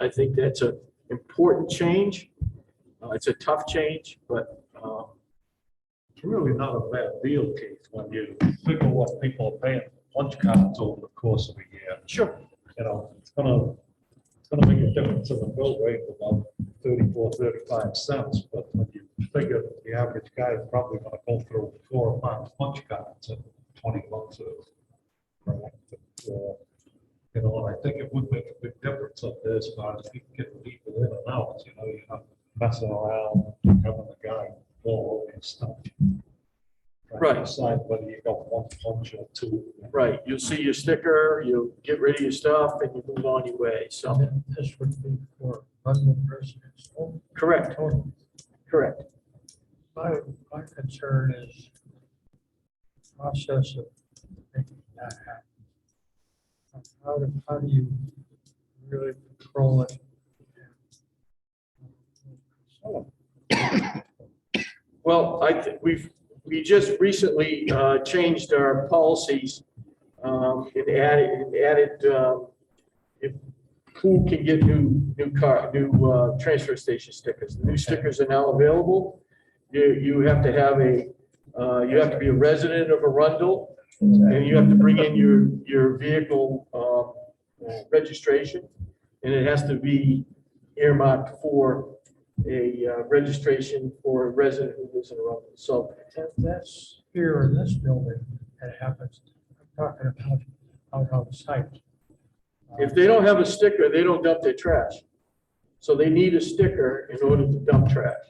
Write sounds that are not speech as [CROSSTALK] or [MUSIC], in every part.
I think that's an important change. Uh, It's a tough change, but um, It's really not a bad deal, Keith, when you figure what people are paying for lunch cards over the course of a year. sure, You know, it's gonna, it's gonna make a difference in the bill rate of about thirty-four, thirty-five cents. But when you figure the average guy is probably gonna go through four or five lunch cards in twenty bucks. or- or, uh, You know, and I think it would make a big difference up there as far as people getting people in and out, you know, you're not messing around, having the guy go over and stuff. Trying to Right. Decide whether you got one punch or two. right. You see your sticker, you get rid of your stuff and you move on your way. So, This would be for Muslim residents. correct, correct. My, my concern is process of making that happen. And How do, how do you really control it? Well, I, thi- we've, we just recently uh, changed our policies um, and added, and added uh, if- who can get new, new car, new uh, transfer station stickers. The New stickers are now available. You, you have to have a, uh, you have to be a resident of Arundel, and you have to bring in your, your vehicle um, registration, and it has to be earmarked for a uh, registration for a resident who lives in Arundel. So, That- That's here in this building that happens. I'm talking about out on the site. Uh, if they don't have a sticker, they don't dump their trash. So they need a sticker in order to dump trash.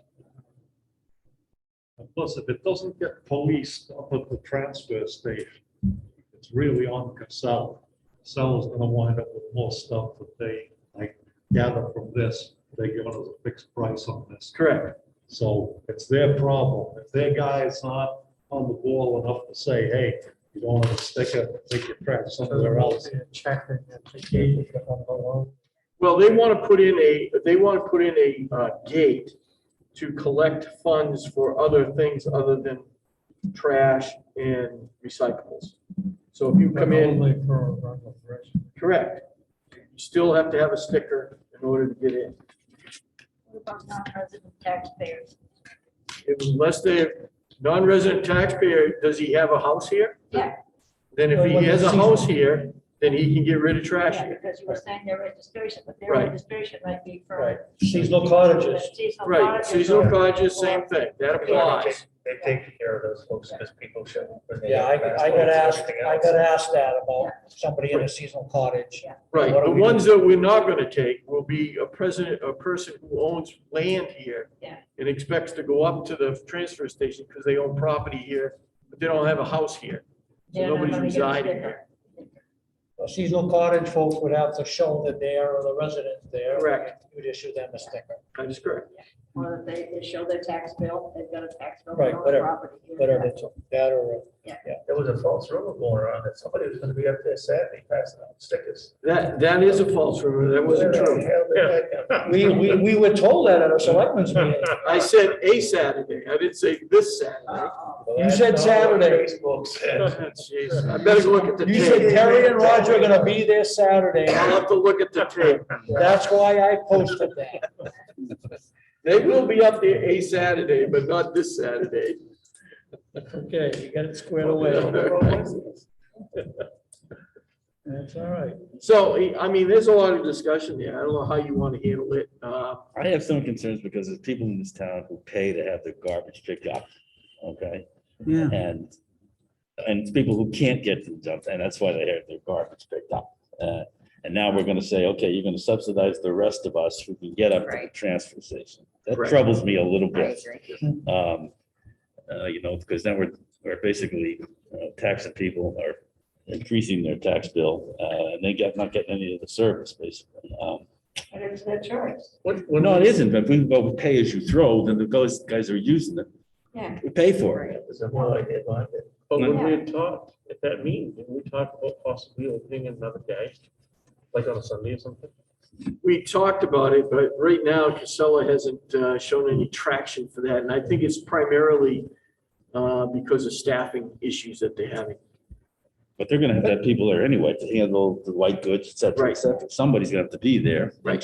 Plus, if it doesn't get policed up at the transfer station, it's really on Casella. Casella's gonna wind up with more stuff that they, like, gather from this, they give us a fixed price on this. Correct. So it's their problem. If their guy is not on the ball enough to say, hey, you don't have a sticker, take your crap somewhere else. Checking and taking it on the low. Well, they want to put in a, they want to put in a uh, gate to collect funds for other things other than trash and recyclables. So if you come in, Only for a run of risk. correct, you still have to have a sticker in order to get in. What about non-resident taxpayers? Unless they're non-resident taxpayer, does he have a house here? Yeah. Then if he Well, has a seasonal. house here, then he can get rid of trash Yeah, here. Because you were saying their registration, but their Right. registration might be for. Seasonal cottages. Seasonal Right, cottages seasonal or- cottages, same thing, that applies. They take care of those folks because people show. up when they Yeah, I, get I got passports asked, and everything I else. got asked that about somebody in a seasonal cottage. Right, What do the we do? ones that we're not gonna take will be a president, a person who owns land here. Yeah. And expects to go up to the transfer station because they own property here, but they don't have a house here. They're not nobody's gonna get a residing sticker. A seasonal cottage folks would have to show that they are the residents there. Correct. You'd issue them a sticker, That is correct. Or that they, they show their tax bill, they've got a tax bill. for Right, all the whatever, property here. whatever, it's- that or. There was a false rumor going around that somebody was gonna be up there Saturday passing out stickers. That, that is a false rumor, that wasn't true. Yeah. We, we, we were told that at a selectmen's [LAUGHS] meeting. I said a Saturday, I didn't say this Saturday. Uh-oh. You said Saturday. Facebook said. [LAUGHS] Jeez, I better go look at the You said tape. Terry and Roger are gonna be there Saturday. I'll have to look at the tape. That's why I posted that. They will be up there a Saturday, but not this Saturday. Okay, you got it squared [LAUGHS] That's all right. [LAUGHS] So, I mean, there's a lot of discussion there. I don't know how you want to handle it. Uh, I have some concerns because there's people in this town who pay to have their garbage picked up, okay? Yeah. And, and it's people who can't get to the dump, and that's why they have their garbage picked up. Uh, And now we're gonna say, okay, you're gonna subsidize the rest of us who can get up to the Right. transfer station. That Right. troubles me a little I bit. agree. Um, uh, you know, because then we're, we're basically uh, taxing people or increasing their tax bill, uh, and they get, not getting any of the service, basically. Um, But it's their choice. well, no, it isn't, but if we go with pay as you throw, then the guys, guys are using it, Yeah. we pay for it. It was a whole idea behind it. But when we had talked at that meeting, didn't we talk about possibly opening another day? Like on a Sunday or something? We talked about it, but right now Casella hasn't uh, shown any traction for that. And I think it's primarily uh, because of staffing issues that they're having. But they're gonna have to have people there anyway to handle the white goods, et cetera, Right. et cetera. Somebody's gonna have to be there. Right.